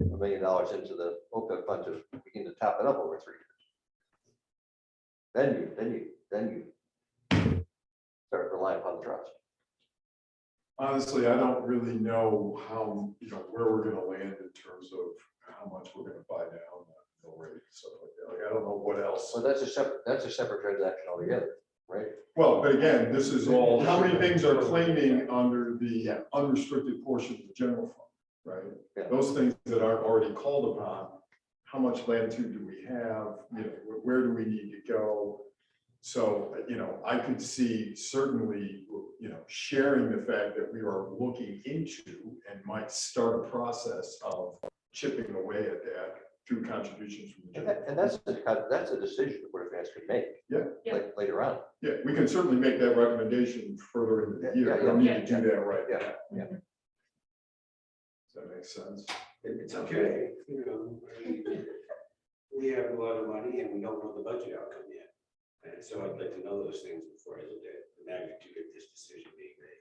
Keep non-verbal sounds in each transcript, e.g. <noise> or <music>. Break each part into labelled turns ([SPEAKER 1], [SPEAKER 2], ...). [SPEAKER 1] million dollars into the OPEB fund to begin to top it up over three years. Then you, then you, then you start relying upon the trust.
[SPEAKER 2] Honestly, I don't really know how, you know, where we're gonna land in terms of how much we're gonna buy down, the rate, and stuff like that. Like, I don't know what else.
[SPEAKER 1] So that's a separate, that's a separate transaction altogether, right?
[SPEAKER 2] Well, but again, this is all, how many things are claiming
[SPEAKER 1] claiming
[SPEAKER 2] under the
[SPEAKER 1] Yeah.
[SPEAKER 2] unrestricted portion of the general fund,
[SPEAKER 1] Yeah.
[SPEAKER 2] right? Those things that aren't already called upon, how much latitude do we have, you know, wh- where do we need to go? So, you know, I could see certainly, you know, sharing the fact that we are looking into and might start a process of chipping away at that through contributions from the
[SPEAKER 1] And
[SPEAKER 2] general.
[SPEAKER 1] that- and that's, the kind of- that's a decision the Board of Finance can make.
[SPEAKER 2] Yeah.
[SPEAKER 3] Yeah.
[SPEAKER 1] la- Later on.
[SPEAKER 2] Yeah, we can certainly make that recommendation further in the
[SPEAKER 1] Yeah,
[SPEAKER 2] year.
[SPEAKER 1] yeah,
[SPEAKER 2] We don't
[SPEAKER 3] yeah.
[SPEAKER 2] need to do that right now.
[SPEAKER 1] Yeah, yeah.
[SPEAKER 2] Does that make sense?
[SPEAKER 4] It's okay, you know. I mean, We have a lot of money and we don't know the budget outcome yet. And so I'd like to know those things before I look at the magnitude of this decision being made.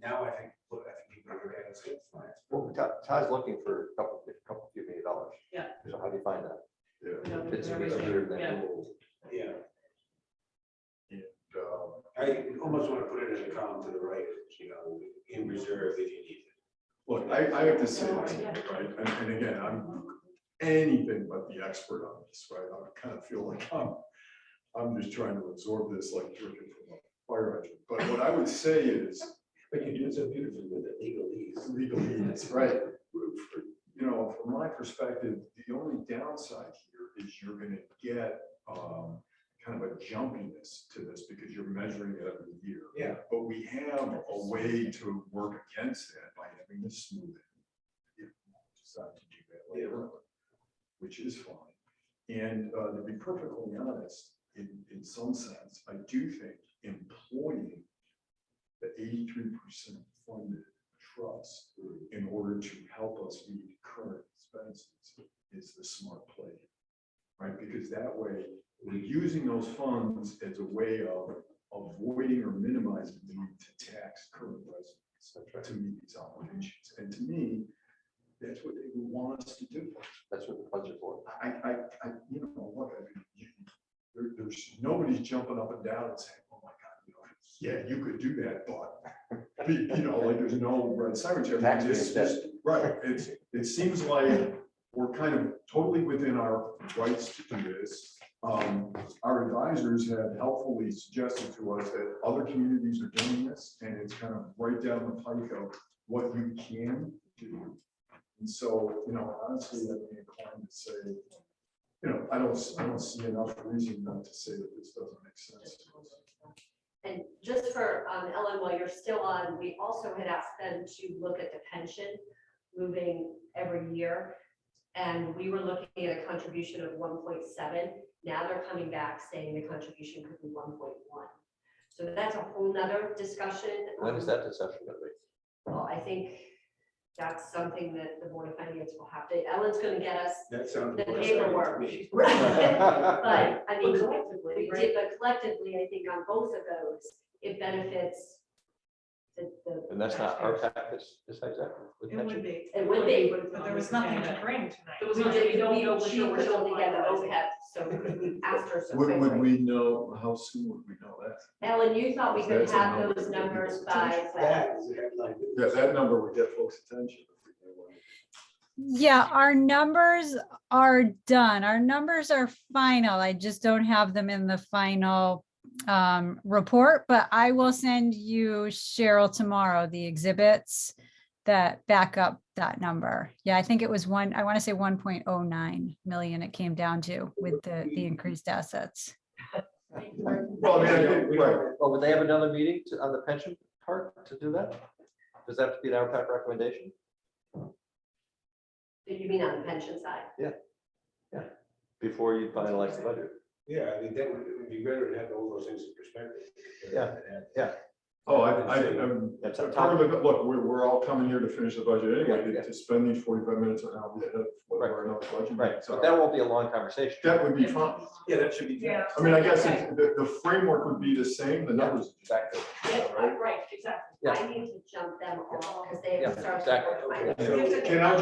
[SPEAKER 4] Now I think, look, I think people are getting some plans.
[SPEAKER 1] Well, Todd- Todd's looking for a couple, a couple few million dollars.
[SPEAKER 3] Yeah.
[SPEAKER 1] So how do you find that?
[SPEAKER 2] Yeah.
[SPEAKER 3] you know,
[SPEAKER 1] It's
[SPEAKER 3] because
[SPEAKER 1] a
[SPEAKER 3] everything-
[SPEAKER 1] weird
[SPEAKER 3] yeah.
[SPEAKER 1] thing.
[SPEAKER 4] Yeah,
[SPEAKER 2] Um,
[SPEAKER 4] I almost want to put it in a column to the right, you know, in reserve if you need it.
[SPEAKER 2] Look, I, I have to say, this, right, and, and again, I'm anything but the expert on this, right? I kind of feel like I'm, I'm just trying to absorb this like drinking from a fire hydrant. But what I would say is,
[SPEAKER 4] But you do so beautifully with the legalese.
[SPEAKER 2] legally, that's right. You know, from my perspective, the only downside here is you're gonna get, um, kind of a jumpiness to this because you're measuring it every year.
[SPEAKER 4] Yeah.
[SPEAKER 2] But we have a way to work against that by having this smooth. it, if we Decide to do that later, on, which is fine. And, uh, to be perfectly honest, in, in some sense, I do think employing the eighty-three percent funded trust in order to help us meet current expenses is the smart play. Right, because that way, we're using those funds as a way of avoiding or minimizing the need to tax current residents to meet these obligations. And to me, that's what they want us to do.
[SPEAKER 1] That's what the funds are for.
[SPEAKER 2] I, I, I, you know, look, I mean, you, there, there's, nobody's jumping up and down and saying, oh my God, you know, yeah, you could do that, but, <laughs> be- you know, like, there's no red sirens here.
[SPEAKER 1] Tax
[SPEAKER 2] It's just- Right, it's, it seems like we're kind of totally within our rights to do this. Um, our advisors have helpfully suggested to us that other communities are doing this, and it's kind of right down the pike of what you can do. And so, you know, honestly, I'd be inclined to say, you know, I don't, I don't see enough reason not to say that this doesn't make sense. to us.
[SPEAKER 5] And just for um, Ellen, while you're still on, we also had asked them to look at the pension moving every year. And we were looking at a contribution of one point seven. Now they're coming back saying the contribution could be one point one. So that's a whole nother discussion.
[SPEAKER 1] When is that discussion gonna
[SPEAKER 3] <laughs>
[SPEAKER 1] be?
[SPEAKER 5] Well, I think that's something that the Board of Finance will have to, Ellen's gonna get us
[SPEAKER 4] That sounds.
[SPEAKER 5] the
[SPEAKER 4] more exciting to
[SPEAKER 5] paperwork.
[SPEAKER 4] me.
[SPEAKER 5] <laughs> But I mean,
[SPEAKER 3] But collectively,
[SPEAKER 5] we
[SPEAKER 3] right?
[SPEAKER 5] did, but collectively, I think on both of those, it benefits the, the.
[SPEAKER 1] And that's not our practice, decides that. with
[SPEAKER 6] It would
[SPEAKER 1] pension.
[SPEAKER 6] be.
[SPEAKER 5] It would be.
[SPEAKER 6] But there was nothing to bring tonight.
[SPEAKER 3] There was
[SPEAKER 5] We
[SPEAKER 3] nothing-
[SPEAKER 5] did,
[SPEAKER 3] we don't
[SPEAKER 5] we,
[SPEAKER 3] know for
[SPEAKER 5] she
[SPEAKER 3] sure, we're
[SPEAKER 5] was
[SPEAKER 3] still
[SPEAKER 5] only get the
[SPEAKER 3] finalizing.
[SPEAKER 5] OPEB, so we asked her so
[SPEAKER 2] Would, would
[SPEAKER 5] quickly.
[SPEAKER 2] we know, how soon would we know that?
[SPEAKER 5] Ellen, you thought we could
[SPEAKER 2] That's a
[SPEAKER 5] have
[SPEAKER 2] number
[SPEAKER 5] those
[SPEAKER 2] that we
[SPEAKER 5] numbers
[SPEAKER 2] could
[SPEAKER 5] by,
[SPEAKER 4] That is a headline.
[SPEAKER 2] Yeah, that number would get folks' attention. if we knew what it
[SPEAKER 7] Yeah, our numbers are done. Our numbers are final. I just don't have them in the final um, report, but I will send you Cheryl tomorrow, the exhibits that back up that number. Yeah, I think it was one, I want to say 1.09 million it came down to with the, the increased assets.
[SPEAKER 2] Well, I mean, I think,
[SPEAKER 4] We don't-
[SPEAKER 2] right,
[SPEAKER 1] Well, Oh, would they have another meeting to- on the pension part to do that? Does that have to be an hour type recommendation?
[SPEAKER 5] you mean on the pension side?
[SPEAKER 1] Before you finalize the budget?
[SPEAKER 4] Yeah, I mean, that would, it would be better to have all those things in perspective.
[SPEAKER 1] Yeah, yeah.
[SPEAKER 2] oh, I, I, I'm,
[SPEAKER 1] That's a
[SPEAKER 2] part of
[SPEAKER 1] topic.
[SPEAKER 2] it, look, we're, we're all coming here to finish the budget anyway,
[SPEAKER 1] Yeah, yeah.
[SPEAKER 2] to- to spend these forty-five minutes on how we end up, what our next budget.
[SPEAKER 1] Right,
[SPEAKER 2] So
[SPEAKER 1] but that won't be a long conversation.
[SPEAKER 2] That would be fun.
[SPEAKER 4] Yeah, that should be.
[SPEAKER 6] Yeah.
[SPEAKER 2] I mean, I guess it's- the, the framework would be the same, the numbers.
[SPEAKER 1] Exactly.
[SPEAKER 6] Yeah, Right, exactly.
[SPEAKER 1] Yeah.
[SPEAKER 5] I need to jump them all because they
[SPEAKER 1] Yeah,
[SPEAKER 5] have to start.
[SPEAKER 1] exactly.
[SPEAKER 5] to work my-
[SPEAKER 4] So, Can I